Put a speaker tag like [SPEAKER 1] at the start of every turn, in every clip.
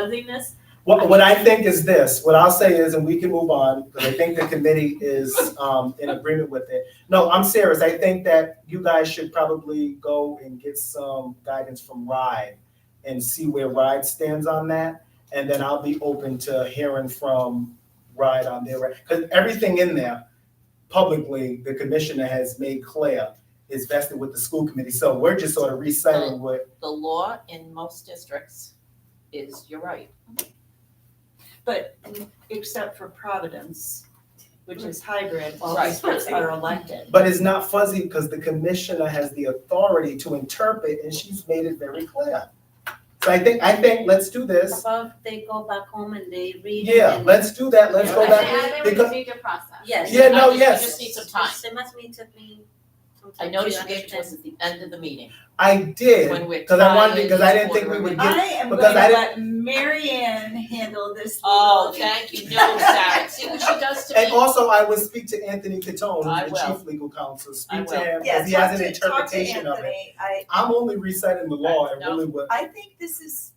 [SPEAKER 1] fuzziness.
[SPEAKER 2] What, what I think is this, what I'll say is, and we can move on, because I think the committee is, um, in agreement with it. No, I'm serious. I think that you guys should probably go and get some guidance from RIDE and see where RIDE stands on that. And then I'll be open to hearing from RIDE on their, because everything in there publicly, the commissioner has made clear is vested with the school committee. So we're just sort of reciting what,
[SPEAKER 3] The law in most districts is, you're right.
[SPEAKER 1] But except for Providence, which is hybrid, all
[SPEAKER 3] Right.
[SPEAKER 1] districts are elected.
[SPEAKER 2] But it's not fuzzy because the commissioner has the authority to interpret and she's made it very clear. So I think, I think, let's do this.
[SPEAKER 4] About they go back home and they read. it
[SPEAKER 2] Yeah,
[SPEAKER 4] and-
[SPEAKER 2] let's do that. Let's go
[SPEAKER 3] Yeah.
[SPEAKER 2] back.
[SPEAKER 5] I think we
[SPEAKER 2] because-
[SPEAKER 5] just need to process.
[SPEAKER 4] Yes.
[SPEAKER 2] Yeah, no,
[SPEAKER 3] I just- we
[SPEAKER 2] yes.
[SPEAKER 3] just need some time.
[SPEAKER 4] They must mean took me. some
[SPEAKER 3] I
[SPEAKER 4] time
[SPEAKER 3] noticed you
[SPEAKER 4] to
[SPEAKER 3] gave it to us
[SPEAKER 4] understand.
[SPEAKER 3] at the end of the meeting,
[SPEAKER 2] I did,
[SPEAKER 3] when we're
[SPEAKER 2] because I wanted,
[SPEAKER 3] tired,
[SPEAKER 2] because I didn't think we would get,
[SPEAKER 6] I am going to
[SPEAKER 2] Because I
[SPEAKER 6] let Marianne handle this.
[SPEAKER 3] Oh,
[SPEAKER 6] legal
[SPEAKER 3] thank you, no, Sarah, see what she does to me?
[SPEAKER 2] and also I would speak to Anthony Catone,
[SPEAKER 3] I
[SPEAKER 2] who's the
[SPEAKER 3] will.
[SPEAKER 2] chief legal counsel,
[SPEAKER 3] I
[SPEAKER 2] speak to
[SPEAKER 3] will.
[SPEAKER 2] him,
[SPEAKER 6] Yeah,
[SPEAKER 2] because he
[SPEAKER 6] talk
[SPEAKER 2] has an
[SPEAKER 6] to- talk to
[SPEAKER 2] interpretation of it.
[SPEAKER 6] Anthony. I,
[SPEAKER 2] I'm only reciting the law and
[SPEAKER 3] Right, no.
[SPEAKER 2] really what,
[SPEAKER 6] I think this is.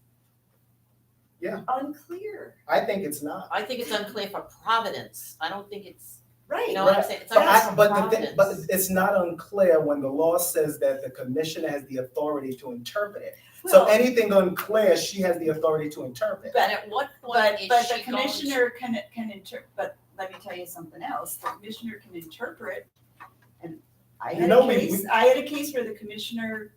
[SPEAKER 2] Yeah.
[SPEAKER 6] Unclear,
[SPEAKER 2] I think it's not.
[SPEAKER 3] I think it's unclear for Providence, I don't think it's, you
[SPEAKER 6] right,
[SPEAKER 3] know what I'm saying, it's
[SPEAKER 2] But
[SPEAKER 3] unclear
[SPEAKER 2] I,
[SPEAKER 3] for
[SPEAKER 2] but the thing, but
[SPEAKER 3] Providence.
[SPEAKER 2] it's not unclear when the law says that the commissioner has the authority to interpret it. So
[SPEAKER 6] Well-
[SPEAKER 2] anything unclear, she has the authority to interpret.
[SPEAKER 3] And at what point
[SPEAKER 6] but,
[SPEAKER 3] is she
[SPEAKER 6] but the
[SPEAKER 3] going to-
[SPEAKER 6] commissioner can, can inter, but let me tell you something else, the commissioner can interpret. And I
[SPEAKER 2] You
[SPEAKER 6] had
[SPEAKER 2] know
[SPEAKER 6] a
[SPEAKER 2] we-
[SPEAKER 6] case, I had a case where the commissioner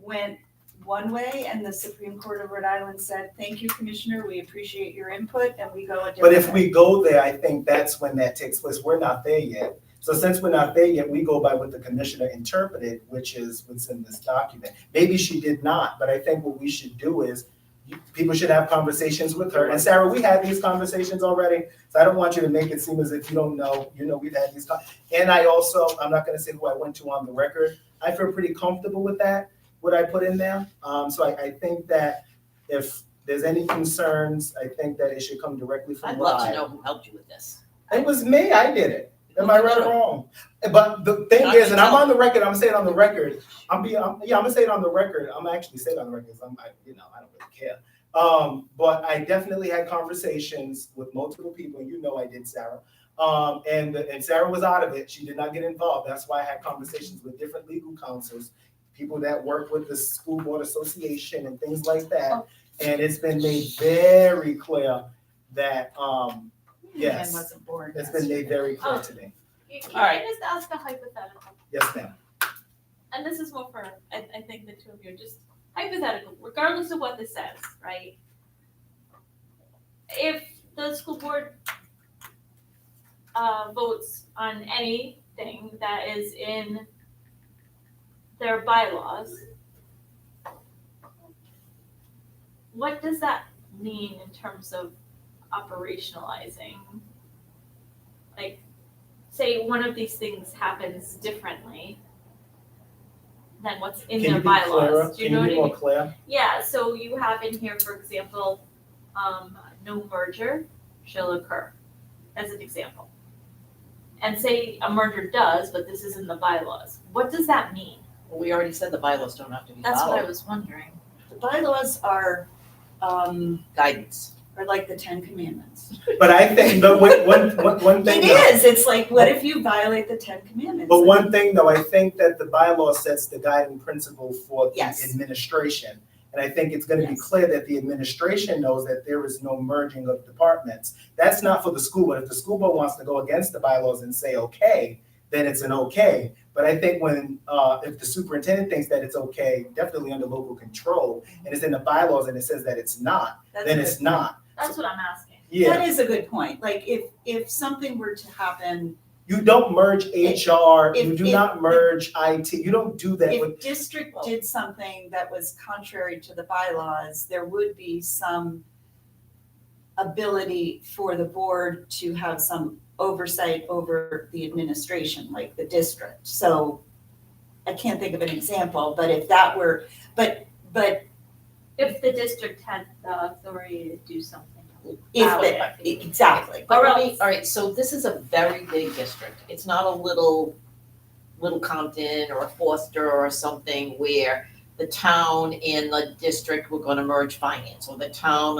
[SPEAKER 6] went one way and the Supreme Court of Rhode Island said, thank you, commissioner, we appreciate your input, and we go a different
[SPEAKER 2] But if
[SPEAKER 6] way.
[SPEAKER 2] we go there, I think that's when that takes place. We're not there yet. So since we're not there yet, we go by what the commissioner interpreted, which is what's in this document. Maybe she did not, but I think what we should do is, you- people should have conversations with her. And Sarah, we had these conversations already, so I don't want you to make it seem as if you don't know, you know, we've had these. con- And I also, I'm not gonna say who I went to on the record. I feel pretty comfortable with that, what I put in there. Um, so I, I think that if there's any concerns, I think that it should come directly from
[SPEAKER 3] I'd
[SPEAKER 2] Rye.
[SPEAKER 3] love to know who helped you with this.
[SPEAKER 2] It was me. I did it. Am I right or wrong? But the thing
[SPEAKER 3] I
[SPEAKER 2] is,
[SPEAKER 3] can
[SPEAKER 2] and I'm
[SPEAKER 3] tell.
[SPEAKER 2] on the record. I'm saying it on the record. I'm being. I'm, yeah, I'm gonna say it on the record. I'm actually saying it on the record. 'cause I'm. I, you know, I don't really care. Um, but I definitely had conversations with multiple people. You know, I did, Sarah. Um, and and Sarah was out of it. She did not get involved. That's why I had conversations with different legal counsels, people that work with the school board association and things like
[SPEAKER 3] Oh.
[SPEAKER 2] that. And it's been made very clear that um, yes.
[SPEAKER 1] And wasn't born.
[SPEAKER 2] It's been made very clear to me.
[SPEAKER 5] You- Can
[SPEAKER 3] All right.
[SPEAKER 5] I just ask a hypothetical?
[SPEAKER 2] Yes, ma'am.
[SPEAKER 5] And this is more for, I, I think the two of you, just hypothetical, regardless of what this says, right? If the school board uh, votes on anything that is in their bylaws, what does that mean in terms of operationalizing? Like, say one of these things happens differently than what's in
[SPEAKER 2] Can
[SPEAKER 5] their
[SPEAKER 2] you be clearer?
[SPEAKER 5] bylaws, do you
[SPEAKER 2] Can
[SPEAKER 5] know
[SPEAKER 2] you
[SPEAKER 5] what I mean?
[SPEAKER 2] be more clear?
[SPEAKER 5] Yeah, so you have in here, for example, um, no merger shall occur, as an example. And say a merger does, but this is in the bylaws, what does that mean? Oh.
[SPEAKER 3] Well, we already said the bylaws don't have to be
[SPEAKER 5] That's what I
[SPEAKER 3] followed,
[SPEAKER 5] was wondering.
[SPEAKER 6] The bylaws are, um,
[SPEAKER 3] guidance.
[SPEAKER 6] are like the Ten Commandments.
[SPEAKER 2] But I think, but one, one, one, one thing.
[SPEAKER 6] It
[SPEAKER 2] though-
[SPEAKER 6] is, it's like, what if you violate the Ten Commandments?
[SPEAKER 2] But one thing though, I think that the bylaw sets the guiding principle for the
[SPEAKER 6] Yes.
[SPEAKER 2] administration. And I think it's gonna be
[SPEAKER 6] Yes.
[SPEAKER 2] clear that the administration knows that there is no merging of departments. That's not for the school board. If the school board wants to go against the bylaws and say, okay, then it's an okay. But I think when, uh, if the superintendent thinks that it's okay, definitely under local control, and it's in the bylaws and it says that it's not,
[SPEAKER 6] That's
[SPEAKER 2] then
[SPEAKER 6] a
[SPEAKER 2] it's
[SPEAKER 6] good-
[SPEAKER 2] not.
[SPEAKER 5] That's what I'm asking.
[SPEAKER 2] Yeah.
[SPEAKER 6] That is a good point, like, if, if something were to happen,
[SPEAKER 2] You don't merge HR, you
[SPEAKER 6] if-
[SPEAKER 2] do
[SPEAKER 6] if-
[SPEAKER 2] not merge IT, you don't do that with,
[SPEAKER 6] if district did something that was contrary to the bylaws, there would be some ability for the board to have some oversight over the administration, like the district, so I can't think of an example, but if that were, but, but
[SPEAKER 5] If the district had the authority to do something.
[SPEAKER 6] if, the- exactly.
[SPEAKER 3] But
[SPEAKER 5] Or
[SPEAKER 3] let me-
[SPEAKER 5] else-
[SPEAKER 3] all right, so this is a very big district. It's not a little, little Compton or a Foster or something where the town and the district were gonna merge finance, or the town